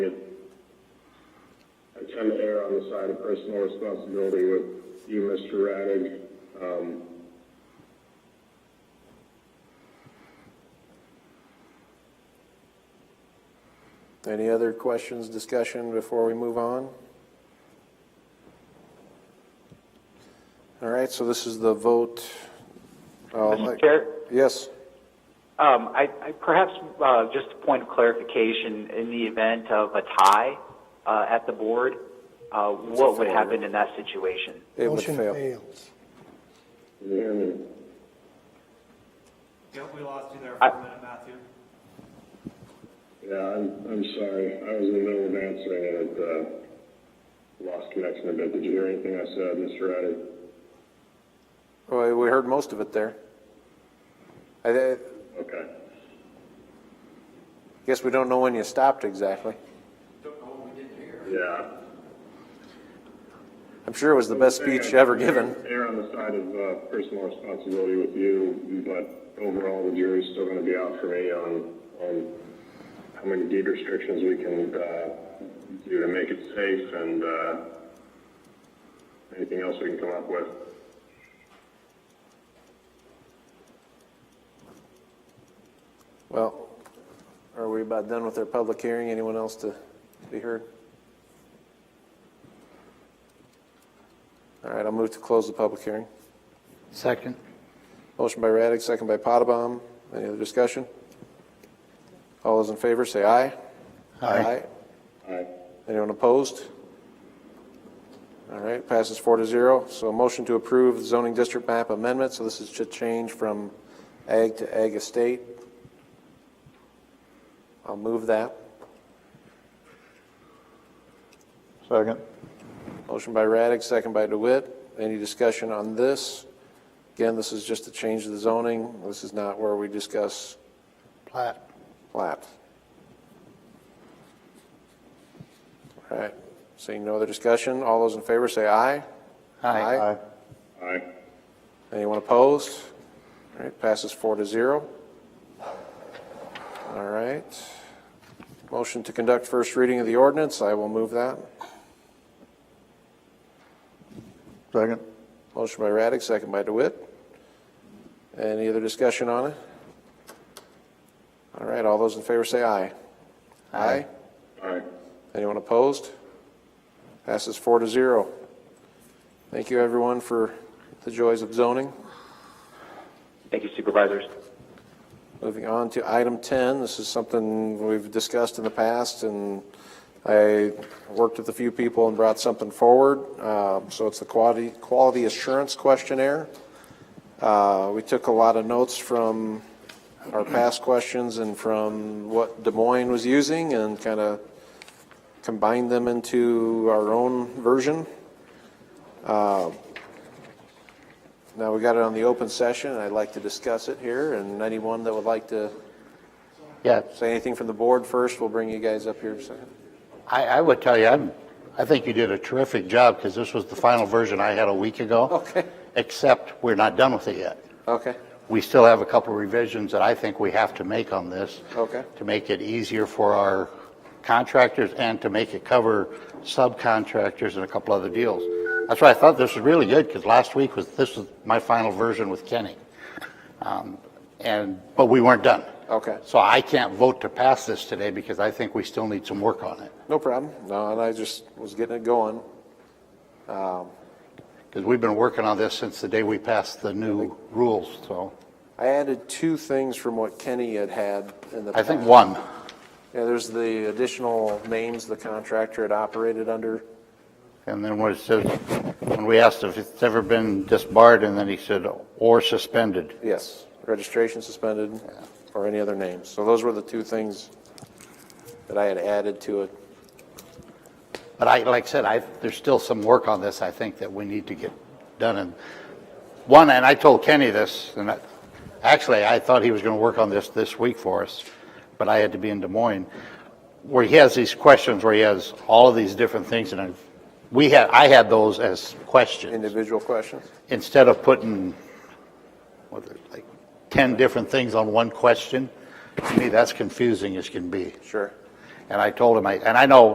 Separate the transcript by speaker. Speaker 1: I tend to err on the side of personal responsibility with you, Mr. Radig. Um,
Speaker 2: Any other questions, discussion before we move on? All right, so this is the vote. I'll-
Speaker 3: Mr. Chair,
Speaker 2: Yes,
Speaker 3: um, I, I perhaps, uh, just a point of clarification, in the event of a tie, uh, at the board, uh, what would
Speaker 2: failure.
Speaker 3: happen in that situation?
Speaker 2: it would
Speaker 4: Motion
Speaker 2: fail.
Speaker 4: fails.
Speaker 1: can you hear me?
Speaker 5: Yeah, we lost you there for a minute, Matthew.
Speaker 1: Yeah, I'm, I'm sorry. I was in the middle of answering and it, uh, lost connection a bit. Did you hear anything I said, Mr. Radig?
Speaker 2: Well, we heard most of it there. I I
Speaker 1: Okay.
Speaker 2: guess we don't know when you stopped exactly.
Speaker 1: Yeah.
Speaker 2: I'm sure it was the best speech ever given.
Speaker 1: Err on the side of, uh, personal responsibility with you, but overall, the jury's still gonna be out for me on, on how many deed restrictions we can, uh, do to make it safe and, uh, anything else we can come up with.
Speaker 2: Well, are we about done with our public hearing? Anyone else to be heard? All right, I'll move to close the public hearing.
Speaker 4: Second.
Speaker 2: Motion by Raddick, second by Potabom. Any other discussion? All those in favor, say aye.
Speaker 1: Aye.
Speaker 2: Anyone opposed? All right, passes four to zero. So a motion to approve the zoning district map amendment, so this is to change from ag to ag estate. I'll move that.
Speaker 6: Second.
Speaker 2: Motion by Raddick, second by DeWitt. Any discussion on this? Again, this is just a change of the zoning. This is not where we discuss
Speaker 4: Plat.
Speaker 2: plat. All right, seeing no other discussion, all those in favor say aye.
Speaker 6: Aye.
Speaker 1: Aye.
Speaker 2: Anyone opposed? All right, passes four to zero. All right. Motion to conduct first reading of the ordinance, I will move that.
Speaker 6: Second.
Speaker 2: Motion by Raddick, second by DeWitt. Any other discussion on it? All right, all those in favor say aye. Aye.
Speaker 1: Aye.
Speaker 2: Anyone opposed? Passes four to zero. Thank you, everyone, for the joys of zoning.
Speaker 3: Thank you supervisors.
Speaker 2: Moving on to item 10, this is something we've discussed in the past, and I worked with a few people and brought something forward. Uh, So it's the quality, quality assurance questionnaire. Uh, We took a lot of notes from our past questions and from what Des Moines was using and kind of combined them into our own version. Now, we got it on the open session, and I'd like to discuss it here, and anyone that would like to
Speaker 7: Yeah,
Speaker 2: say anything from the board first, we'll bring you guys up here in a second.
Speaker 7: I, I would tell you, I'm, I think you did a terrific job because this was the final version I had a week ago.
Speaker 2: Okay.
Speaker 7: Except we're not done with it yet.
Speaker 2: Okay,
Speaker 7: We still have a couple of revisions that I think we have to make on this.
Speaker 2: Okay.
Speaker 7: To make it easier for our contractors and to make it cover subcontractors and a couple other deals. That's why I thought this was really good because last week was, this was my final version with Kenny. Um, And, but we weren't done.
Speaker 2: okay,
Speaker 7: So I can't vote to pass this today because I think we still need some work on it.
Speaker 2: no problem. No, and I just was getting it going.
Speaker 7: Because we've been working on this since the day we passed the new rules, so
Speaker 2: I added two things from what Kenny had had in the.
Speaker 7: I think
Speaker 2: past.
Speaker 7: one,
Speaker 2: Yeah, there's the additional names the contractor had operated under.
Speaker 7: and then what it says, when we asked if it's ever been disbarred, and then he said, or suspended.
Speaker 2: Yes, registration suspended or any other names. So those were the two things that I had added to it.
Speaker 7: But I, like I said, I, there's still some work on this, I think, that we need to get done. And one, and I told Kenny this, and I, actually, I thought he was going to work on this this week for us, but I had to be in Des Moines, where he has these questions, where he has all of these different things, and I've, we had, I had those as questions,
Speaker 2: Individual questions?
Speaker 7: instead of putting, what, like, 10 different things on one question. To me, that's confusing as can be.
Speaker 2: Sure.
Speaker 7: And I told him, I, and I know